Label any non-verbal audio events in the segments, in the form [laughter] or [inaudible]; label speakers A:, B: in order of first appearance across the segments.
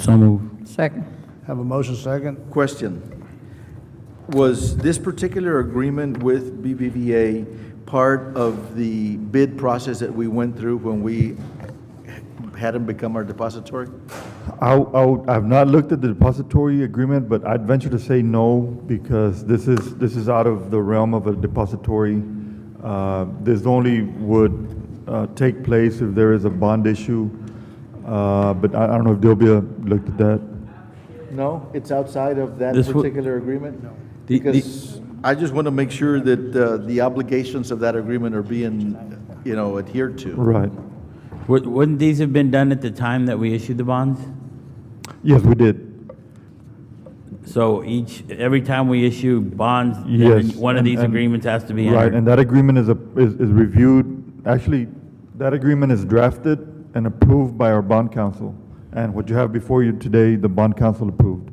A: So moved.
B: Second.
C: Have a motion second?
D: Question. Was this particular agreement with BBVA part of the bid process that we went through when we had them become our depository?
E: I, I would- I've not looked at the depository agreement, but I'd venture to say no, because this is, this is out of the realm of a depository. Uh, This only would uh, take place if there is a bond issue, Uh, but I I don't know if Delbia looked at that.
D: No, it's outside of that
A: This wa-
D: particular agreement? No.
A: The- the-
D: Because I just want to make sure that uh, the obligations of that agreement are being, you know, adhered to.
E: Right.
A: Wou- Wouldn't these have been done at the time that we issued the bonds?
E: Yes, we did.
A: So each, every time we issue bonds, then
E: Yes.
A: one of
E: and-
A: these
E: and-
A: agreements has to be
E: Right,
A: entered.
E: and that agreement is, a- is is reviewed, actually, that agreement is drafted and approved by our bond council. And what you have before you today, the bond council approved.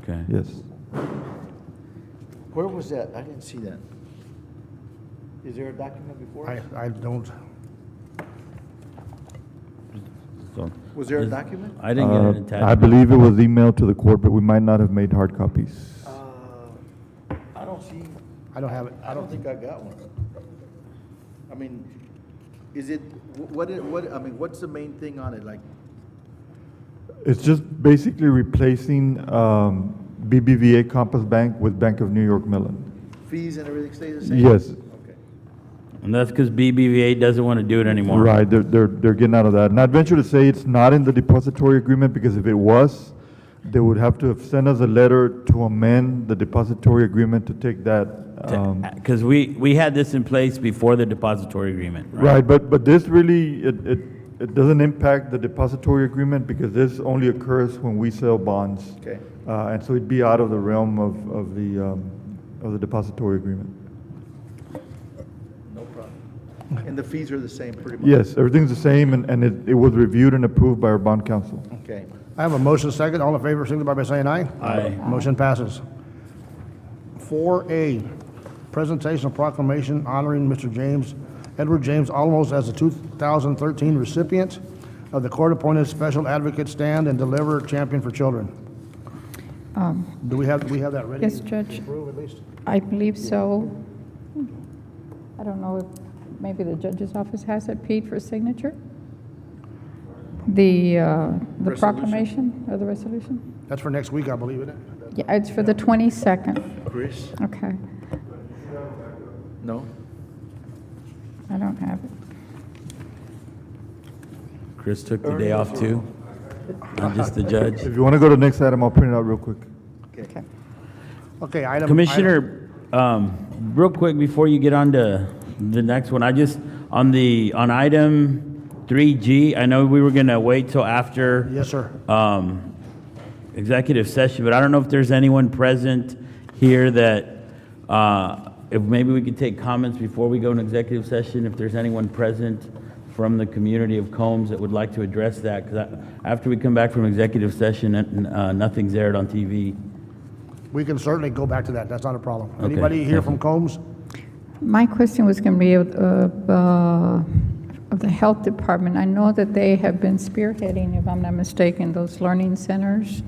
A: Okay.
E: Yes.
D: Where was that? I didn't see that. Is there a document before?
C: I,
D: us?
C: I don't,
A: So
D: Was there a document?
A: I didn't get
E: Uh,
A: an attachment.
E: I believe it was emailed to the court, but we might not have made hard copies.
D: I don't see,
C: I don't have it.
D: I don't think I got one. I mean, is it, wh- what, it- what, I mean, what's the main thing on it? Like,
E: It's just basically replacing um, BBVA Compass Bank with Bank of New York Mellon.
D: fees and everything stays the same?
E: Yes,
D: Okay.
A: And that's because BBVA doesn't want to do it anymore.
E: right, they're, they're, they're getting out of that. And I'd venture to say it's not in the depository agreement, because if it was, they would have to have sent us a letter to amend the depository agreement to take that. um,
A: Because uh, we, we had this in place before the depository agreement, right?
E: Right, but, but this really, it, it, it doesn't impact the depository agreement because this only occurs when we sell bonds.
D: Okay.
E: Uh, and so it'd be out of the realm of, of the, um, of the depository agreement.
D: No problem. And the fees are the same pretty much?
E: Yes, everything's the same and, and it, it was reviewed and approved by our bond council.
D: Okay.
C: I have a motion second. All in favor, signify by saying aye.
A: Aye.
C: Motion passes. Four A, presentation of proclamation honoring Mr. James, Edward James Olmos as the two thousand thirteen recipient of the court-appointed special advocate stand and deliver champion for children. Do we have, do we have that ready?
B: Um, Yes, Judge.
C: to approve at least?
B: I believe so. I don't know if, maybe the judge's office has it, Pete, for signature? The, uh, the proclamation or the resolution?
C: That's for next week, I believe, isn't it?
B: Yeah, it's for the 22nd.
D: Chris?
B: Okay,
D: No?
B: I don't have it.
A: Chris took the day off too. I'm just the judge.
E: If you want to go to the next item, I'll print it out real quick.
B: Okay.
C: Okay, item. item-
A: Commissioner, um, real quick, before you get on to the next one, I just, on the, on item 3G, I know we were going to wait till after
C: Yes, sir.
A: um, executive session, but I don't know if there's anyone present here that, uh, if maybe we could take comments before we go in executive session, if there's anyone present from the community of Combs that would like to address that, because after we come back from executive session, uh, nothing's aired on TV.
C: We can certainly go back to that. That's not a problem.
A: Okay,
C: Anybody here
A: thank
C: from
A: you.
C: Combs?
B: My question was going to be of, of, uh, of the Health Department. I know that they have been spearheading, if I'm not mistaken, those learning centers.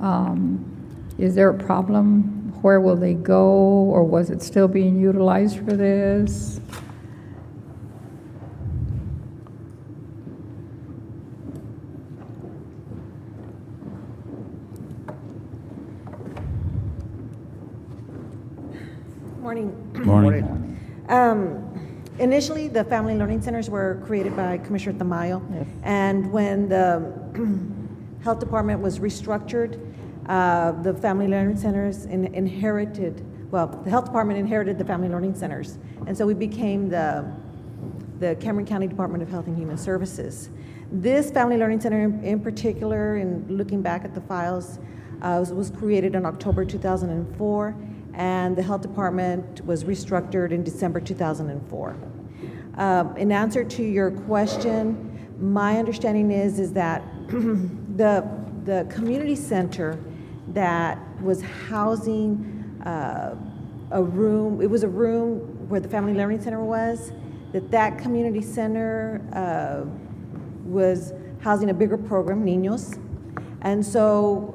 B: Um, Is there a problem? Where will they go? Or was it still being utilized for this?
F: Morning.
A: Morning.
F: Um, Initially, the Family Learning Centers were created by Commissioner Tamayo.
B: Yes.
F: And when the Health Department was restructured, uh, the Family Learning Centers in- inherited, well, the Health Department inherited the Family Learning Centers. And so we became the the Cameron County Department of Health and Human Services. This Family Learning Center in, in particular, and looking back at the files, uh, was, was created in October 2004, and the Health Department was restructured in December 2004. Um, in answer to your question, my understanding is, is that [clears throat] the, the community center that was housing uh, a room, it was a room where the Family Learning Center was, that that community center uh, was housing a bigger program, Niños, And so